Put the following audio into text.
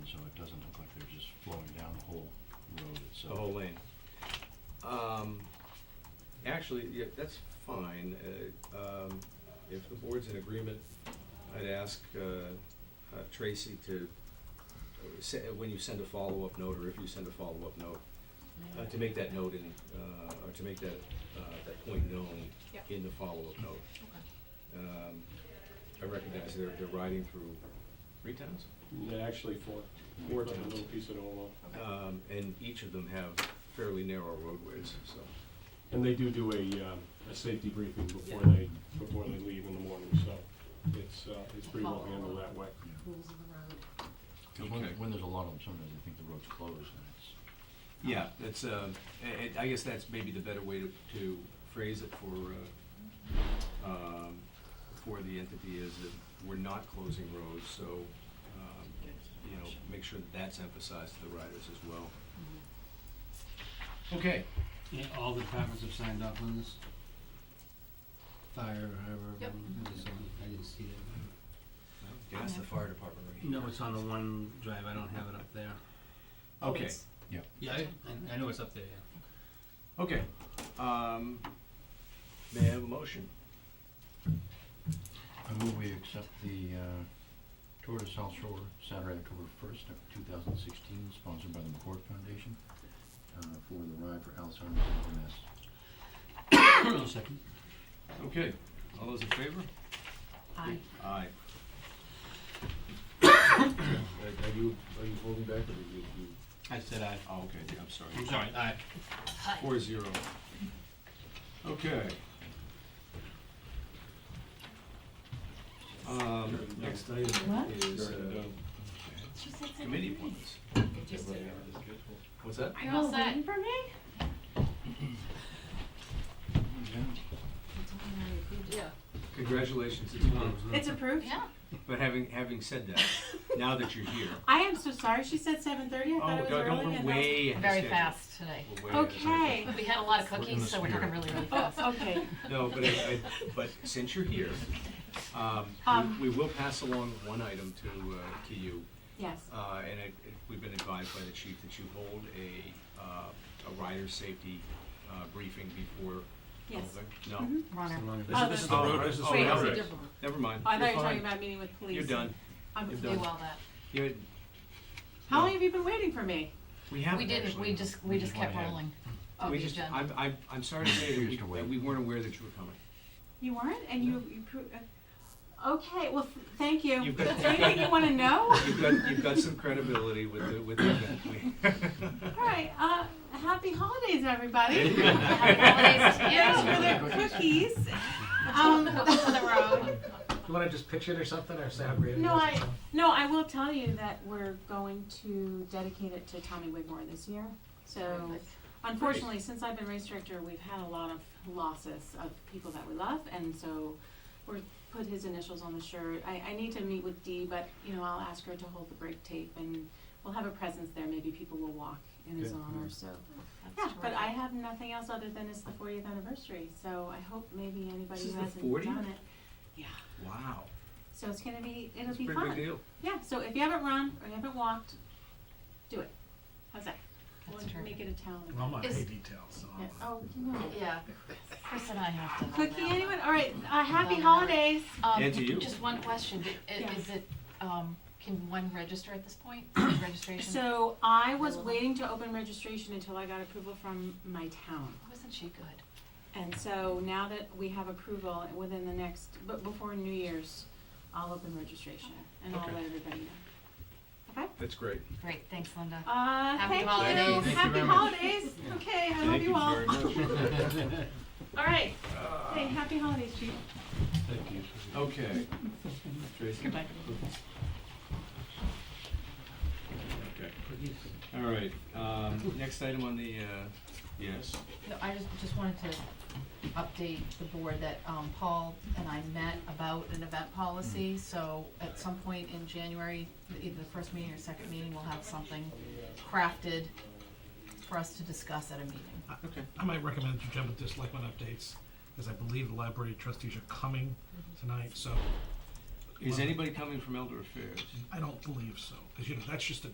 the whole lane. Um, Actually, yeah, that's fine. Uh, um, If the board's in agreement, I'd ask uh, uh, Tracy to, uh, se- when you send a follow-up note, or if you send a follow-up note, uh, to make that note in, uh, or to make that, uh, that point known Yep. in the follow-up note. Okay. Um, I recognize they're, they're riding through three towns, They're actually four. Four Like a towns. Little piece of Olo. um, and each of them have fairly narrow roadways, so. And they do do a, um, a safety briefing before Yeah. they, before they leave in the morning, so it's, uh, it's pretty well handled that way. Oh. Rules of the road. Because when, Okay. when there's a lot of them, sometimes I think the road's closed and it's, Yeah, that's, uh, I- I I guess that's maybe the better way to to phrase it for, uh, um, for the entity is that we're not closing roads, so, um, you know, make sure that that's emphasized to the riders as well. Okay, Yeah, all the departments have signed off on this? Fire, however, Yep. everyone, I just don't- I didn't see that. that's the fire department right No, it's on the one drive, I don't have it up there. Okay, It's- Yeah, I, I- I know it's up there, yeah. okay. Um, May I have a motion? I move we accept the, uh, Tour to South Shore, Saturday, October first, two thousand sixteen, sponsored by the McCord Foundation, uh, for the ride for Alzheimer's and MS. I'll second. Okay, all those in favor? I, Aye. Are you, are you holding back or did you? you- I said aye. Oh, okay, I'm sorry. I'm sorry, aye. Four zero. Okay. Um, next item What? is uh, Very done. committee appointments. What's that? I'm all set. for me? Yeah. Congratulations, it's approved. It's approved? Yeah. But having, having said that, now that you're here. I am so sorry, she said seven thirty, I Oh, thought it was don't- early. don't, we're and way ahead of Very schedule. fast today. We're way ahead of schedule. Okay. We had a lot of We're in the cookies, so we're talking spirit. really, really I fast. was- Oh, okay, No, but I, I, but since you're here, um, Um. we, we will pass along one item to, uh, to you. yes, Uh, and it, it, we've been advised by the chief that you hold a, uh, a rider safety, uh, briefing before. yes. moving. No, Mhm. Runner. Oh, This that's- is the road, this is Oh, the wait, yeah, it's right. a road. different one. never mind. I thought You're you were talking fine. about meeting with police. You're done. I'm- You're Do done. all that. You're- How long have you been waiting for me? we haven't We didn't, actually. we just, we We just just kept went ahead. rolling. Oh, We the just, agenda. I'm, I'm, I'm sorry to say that We we, used to wait. that we weren't aware that you were coming. You weren't, and you, you, pro- uh, okay, well, th- thank you. You've Is got- there anything you wanna know? You've got, you've got some credibility with the, with the event. All right, uh, happy holidays, everybody. Happy holidays to you. Thanks for the cookies. Um, Cookies on the road. You wanna just picture it or something, or say how great No, I, no, I will tell you that we're going to dedicate it to Tommy Wigmore this year. So Perfect. unfortunately, since I've been race director, we've had a lot of losses of people that we love. And so we're, put his initials on the shirt. I, I need to meet with Dee, but, you know, I'll ask her to hold the break tape and we'll have a presence there. Maybe people will walk in his Good. honor, so. Yeah, That's but I terrific. have nothing else other than it's the fortieth anniversary, so I hope maybe anybody This is who the hasn't 40th? done it. Yeah, Wow. so it's gonna be, it'll It's a be fun. pretty big deal. Yeah, so if you haven't run or you haven't walked, do it. How's that? That's We'll terrific. make it a town. I'm not Is- pay details, so. Yeah, Oh, you know. Yeah, Chris and I have to. hold Cookie, that. anyone? All right, uh, happy Well, holidays. Um, And to you. Just one question, Did- i- Yeah. is it, um, can one register at this point, registration? So I was Hello. waiting to open registration until I got approval from my town. Wasn't she good? And so now that we have approval within the next, but before New Year's, I'll open registration and I'll Okay. let everybody know. Okay? That's great. Great, thanks, Linda. Uh, Happy thank holidays. you. Thank you Happy very much. holidays. Okay, I love you all. Thank you very much. All right. Hey, happy holidays, Chief. Thank you. Okay. Tracy? Okay. All right, um, next item on the, uh, yes, No, I just, just wanted to update the board that, um, Paul and I met about an event policy, so at some point in January, either the first meeting or second meeting, we'll have something crafted for us to discuss at a meeting. okay. I might recommend you jump into selectmen updates, because I believe the library trustees are coming tonight, so Is anybody coming from Elder Affairs? I don't believe so, because you know, that's just a